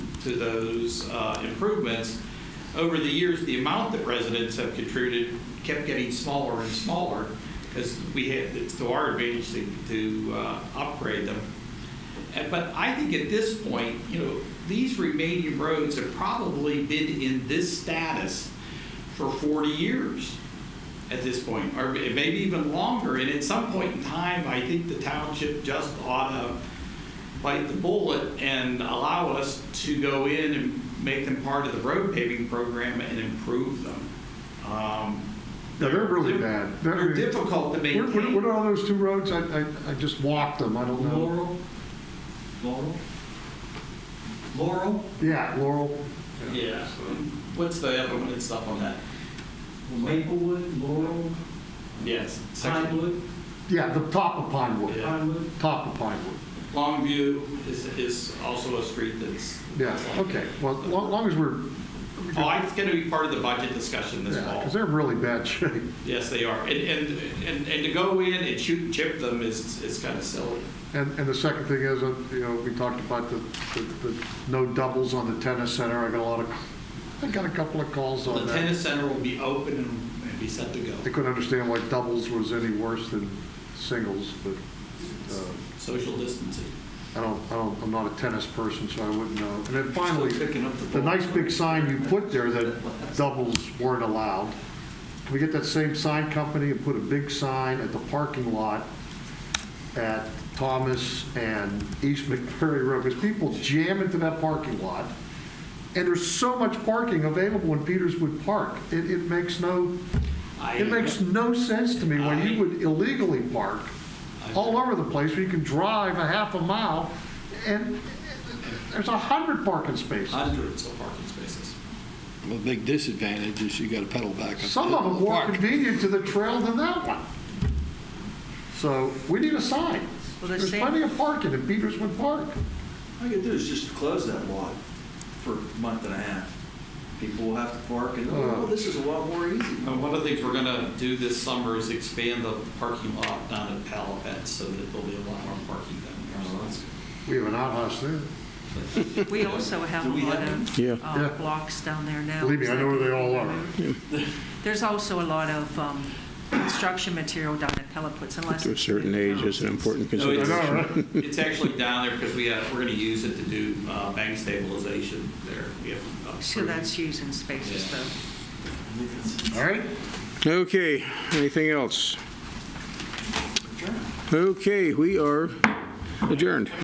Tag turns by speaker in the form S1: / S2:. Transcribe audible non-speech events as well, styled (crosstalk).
S1: to those uh, improvements, over the years, the amount that residents have contributed kept getting smaller and smaller because we had, it's to our advantage to, to uh, upgrade them. And- But I think at this point, you know, these remaining roads have probably been in this status for 40 years at this point, or maybe even longer. And at some point in time, I think the township just ought to bite the bullet and allow us to go in and make them part of the road paving program and improve them. Um,
S2: Yeah, they're really bad.
S1: They're difficult to
S2: What- What what
S1: maintain.
S2: are those two roads? I, I, I just walked them, I don't know.
S1: Laurel? Laurel? Laurel?
S2: Yeah, Laurel.
S1: Yeah. What's the other one that's up on that?
S3: Maplewood, Laurel,
S1: Yes. section-
S3: Pinewood,
S2: Yeah, the top of Pinewood,
S1: Yeah.
S3: Pinewood.
S2: top of Pinewood.
S1: Longview is, is also a street that's.
S2: Yeah, okay, well, as long as we're,
S1: Oh, it's going to be part of the budget discussion this
S2: yeah,
S1: fall.
S2: because they're in really bad (laughs) shape.
S1: Yes, they are. And, and, and, and to go in and shoot and chip them is, is kind of silly.
S2: And, and the second thing is, uh, you know, we talked about the, the- the no doubles on the tennis center. I got a lot of, I got a couple of calls
S1: The
S2: on that.
S1: tennis center will be open and- and be set to go.
S2: I couldn't understand why doubles was any worse than singles, but,
S1: Um,
S2: uh,
S1: Social distancing.
S2: I don't, I don't, I'm not a tennis person, so I wouldn't know. And then finally,
S1: Still picking up the
S2: the
S1: ball.
S2: nice big sign you put there that doubles weren't allowed. Can we get that same sign company and put a big sign at the parking lot at Thomas and East McMurray Road? Because people jam into that parking lot, and there's so much parking available in Peterswood Park. It, it makes no,
S1: I-
S2: it makes no sense to me when you would illegally park all over the place where you can drive a half a mile and there's a hundred parking spaces.
S1: Hundreds of parking spaces.
S4: A big disadvantage is you got to pedal back up.
S2: Some
S4: the
S2: of
S4: hill
S2: them
S4: to
S2: more
S4: park.
S2: convenient to the trail than that one. So we need a sign.
S5: Well, the
S2: There's
S5: same-
S2: plenty of parking in Peterswood Park.
S3: All you do is just close that lot for a month and a half. People will have to park and, oh, this is a lot more easy.
S1: And Uh, one of the things we're going to do this summer is expand the parking lot down at Palapet so that there'll be a lot more parking down there.
S2: We have an outhouse there.
S5: We also have a
S3: Do we
S5: lot
S3: have
S5: of
S4: Yeah.
S5: uh,
S2: Yeah.
S5: blocks down there now.
S2: Believe me, I know where they all are.
S5: (laughs) There's also a lot of um, construction material down at Peliputs unless.
S6: to a certain age is an important
S1: (laughs) No, it's-
S6: consideration.
S1: It's actually down there because we have, we're going to use it to do uh, bank stabilization there. We have uh, approved-
S5: So that's using spaces
S1: Yeah.
S5: though.
S2: All right?
S6: Okay, anything else? Okay, we are adjourned.